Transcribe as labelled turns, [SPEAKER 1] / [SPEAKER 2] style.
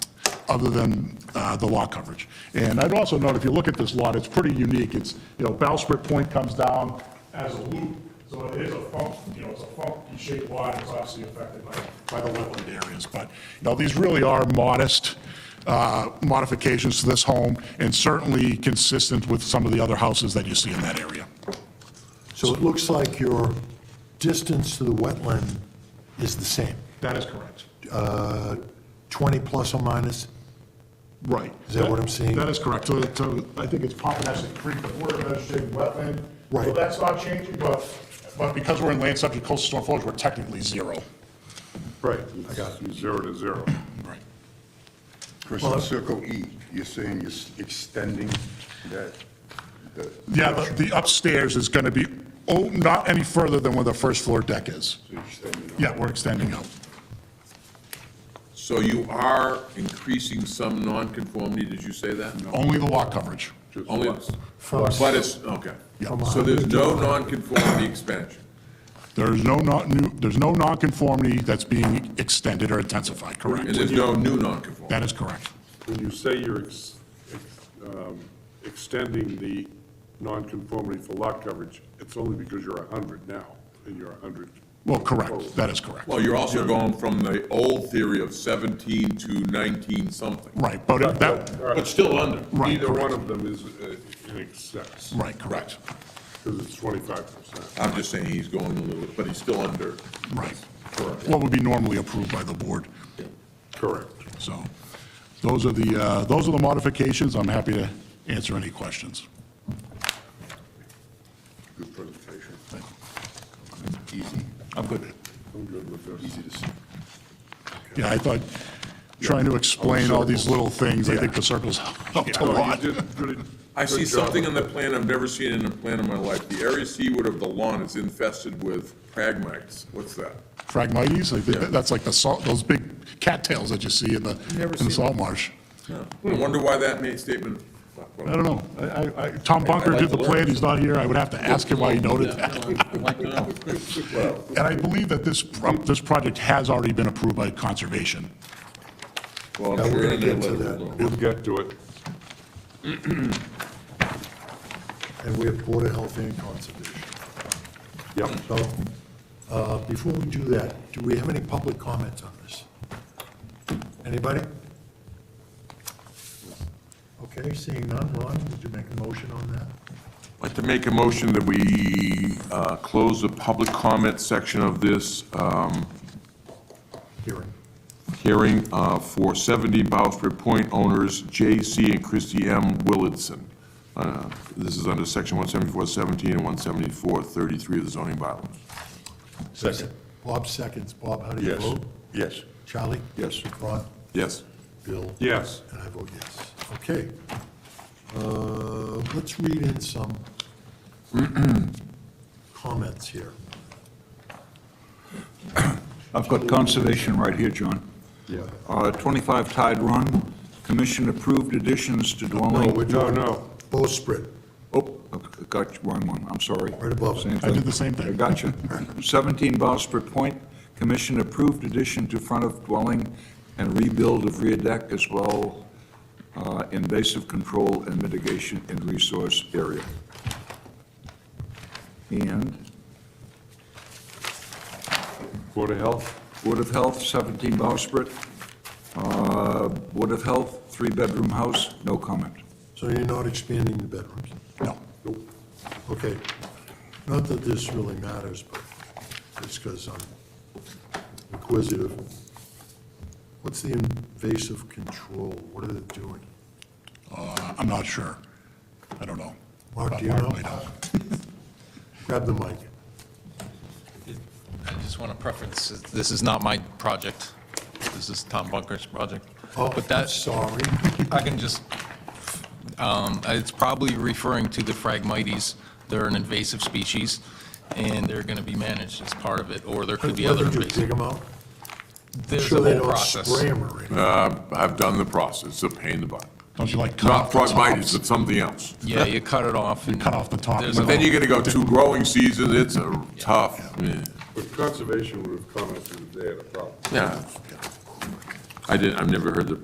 [SPEAKER 1] other than uh, the lot coverage. And I'd also note, if you look at this lot, it's pretty unique. It's, you know, Bowsprit Point comes down as a loop, so it is a funk, you know, it's a funky shaped lot, it's obviously affected by, by the wetland areas. But, you know, these really are modest uh, modifications to this home, and certainly consistent with some of the other houses that you see in that area.
[SPEAKER 2] So it looks like your distance to the wetland is the same,
[SPEAKER 1] That is correct.
[SPEAKER 2] uh, 20 plus or minus?
[SPEAKER 1] Right.
[SPEAKER 2] Is that what I'm seeing?
[SPEAKER 1] That is correct. So, so I think it's Pompanesett Creek, the Board of Education wetland. So
[SPEAKER 2] Right.
[SPEAKER 1] that's not changing, but, but because we're in land subject to coastal storm flowage, we're technically zero.
[SPEAKER 2] Right, I got it.
[SPEAKER 3] Zero to zero.
[SPEAKER 1] Right.
[SPEAKER 3] Chris, on circle E, you're saying you're s- extending that, the,
[SPEAKER 1] Yeah, the- the upstairs is going to be, oh, not any further than where the first floor deck is.
[SPEAKER 3] so you're extending.
[SPEAKER 1] Yeah, we're extending out.
[SPEAKER 4] So you are increasing some nonconformity, did you say that?
[SPEAKER 1] Only the lot coverage.
[SPEAKER 4] Only,
[SPEAKER 2] From-
[SPEAKER 4] but it's, okay.
[SPEAKER 2] From
[SPEAKER 4] So there's no nonconformity expansion.
[SPEAKER 1] There's no, non- new. there's no nonconformity that's being extended or intensified,
[SPEAKER 4] And
[SPEAKER 1] correct?
[SPEAKER 4] there's no new nonconformity.
[SPEAKER 1] That is correct.
[SPEAKER 5] When you say you're ex- ex- um, extending the nonconformity for lot coverage, it's only because you're 100 now, and you're 100.
[SPEAKER 1] Well,
[SPEAKER 2] Oh.
[SPEAKER 1] correct, that is correct.
[SPEAKER 4] Well, you're also going from the old theory of 17 to 19 something.
[SPEAKER 1] Right, but it- that,
[SPEAKER 4] But still under.
[SPEAKER 1] Right,
[SPEAKER 5] uh, Either
[SPEAKER 1] correct.
[SPEAKER 5] one of them is uh, in excess,
[SPEAKER 1] right, correct,
[SPEAKER 5] because it's 25%.
[SPEAKER 4] I'm just saying he's going a little, but he's still under.
[SPEAKER 1] right.
[SPEAKER 4] Correct.
[SPEAKER 1] What would be normally approved by the board,
[SPEAKER 5] Correct.
[SPEAKER 1] so. Those are the, uh, those are the modifications, I'm happy to answer any questions.
[SPEAKER 3] Good presentation. Easy.
[SPEAKER 1] I'm good.
[SPEAKER 3] I'm good with this. Easy to see.
[SPEAKER 1] Yeah, I thought, trying to explain all these little things, I think the circles helped a
[SPEAKER 5] No, you
[SPEAKER 1] lot.
[SPEAKER 5] did good-
[SPEAKER 4] I
[SPEAKER 5] good
[SPEAKER 4] see
[SPEAKER 5] job.
[SPEAKER 4] something on the plan I've never seen in a plan in my life. The area seaward of the lawn is infested with pragmites. What's that?
[SPEAKER 1] Phragmites, I think that's like the salt, those big cattails that you see in the, in the salt marsh.
[SPEAKER 4] Yeah. I wonder why that made statement.
[SPEAKER 1] I don't know, I, I- I, Tom Bunker did the plan, he's not here, I would have to ask him why he noted that.
[SPEAKER 4] I'd like to know.
[SPEAKER 1] And I believe that this, pro- this project has already been approved by conservation.
[SPEAKER 4] Well,
[SPEAKER 2] Yeah,
[SPEAKER 4] I'm
[SPEAKER 2] we're
[SPEAKER 4] sure
[SPEAKER 2] gonna
[SPEAKER 4] in their
[SPEAKER 2] get to
[SPEAKER 4] letter
[SPEAKER 2] that.
[SPEAKER 4] we'll know.
[SPEAKER 5] We'll get to it.
[SPEAKER 2] And we have Board of Health and Conservation.
[SPEAKER 5] Yep.
[SPEAKER 2] So, uh, before we do that, do we have any public comments on this? Anybody? Okay, seeing none, Ron, would you make a motion on that?
[SPEAKER 4] I'd like to make a motion that we uh, close the public comment section of this um,
[SPEAKER 2] Hearing.
[SPEAKER 4] hearing uh, for 70 Bowsprit Point owners J.C. and Christy M. Willardson. Uh, This is under section 174.17 and 174.33 of the zoning bylaws.
[SPEAKER 3] Second.
[SPEAKER 2] Bob seconds. Bob, how do you
[SPEAKER 3] Yes,
[SPEAKER 2] vote?
[SPEAKER 3] yes.
[SPEAKER 2] Charlie?
[SPEAKER 3] Yes.
[SPEAKER 2] Ron?
[SPEAKER 4] Yes.
[SPEAKER 2] Bill?
[SPEAKER 5] Yes.
[SPEAKER 2] And I vote yes. Okay. Uh, Let's read in some comments here.
[SPEAKER 6] I've got conservation right here, John.
[SPEAKER 5] Yeah.
[SPEAKER 6] Uh, 25 Tide Run, commission approved additions to dwelling.
[SPEAKER 5] No, no.
[SPEAKER 2] Bowsprit,
[SPEAKER 6] Oh, I got you, wrong one, I'm sorry.
[SPEAKER 2] Right above it.
[SPEAKER 6] Same
[SPEAKER 1] I did the same thing.
[SPEAKER 6] I got you. 17 Bospert Point, commission approved addition to front of dwelling and rebuild of rear deck as well, uh, invasive control and mitigation in resource area. And
[SPEAKER 5] Board of Health?
[SPEAKER 6] Board of Health, 17 Bowsprit. Uh, Board of Health, three-bedroom house, no comment.
[SPEAKER 2] so you're not expanding the bedrooms?
[SPEAKER 1] No,
[SPEAKER 2] Okay. Not that this really matters, but it's because I'm inquisitive. What's the invasive control? What are they doing?
[SPEAKER 1] uh, I'm not sure. I don't know.
[SPEAKER 2] Mark, do you know?
[SPEAKER 1] I don't.
[SPEAKER 2] Grab the mic.
[SPEAKER 7] I just want to preference, this is not my project. This is Tom Bunker's project.
[SPEAKER 2] Oh,
[SPEAKER 7] But
[SPEAKER 2] I'm
[SPEAKER 7] that,
[SPEAKER 2] sorry.
[SPEAKER 7] I can just, um, it's probably referring to the Phragmites. They're an invasive species, and they're going to be managed as part of it, or there could be
[SPEAKER 2] What
[SPEAKER 7] other
[SPEAKER 2] did you dig
[SPEAKER 7] invasive.
[SPEAKER 2] them out?
[SPEAKER 7] There's
[SPEAKER 2] Sure
[SPEAKER 7] a
[SPEAKER 2] they
[SPEAKER 7] whole
[SPEAKER 2] don't
[SPEAKER 7] process.
[SPEAKER 2] spray them or anything.
[SPEAKER 4] Uh, I've done the process, it's a pain in the butt.
[SPEAKER 1] Don't you like cut
[SPEAKER 4] Not
[SPEAKER 1] off the
[SPEAKER 4] frogmitis,
[SPEAKER 1] tops?
[SPEAKER 4] but something else.
[SPEAKER 7] Yeah, you cut it off. and
[SPEAKER 1] cut off the top.
[SPEAKER 7] there's
[SPEAKER 1] But
[SPEAKER 7] a-
[SPEAKER 4] Then you're gonna go two growing seasons, it's a tough, yeah.
[SPEAKER 5] But conservation would have commented that they had a problem.
[SPEAKER 4] yeah. I didn't, I've never heard the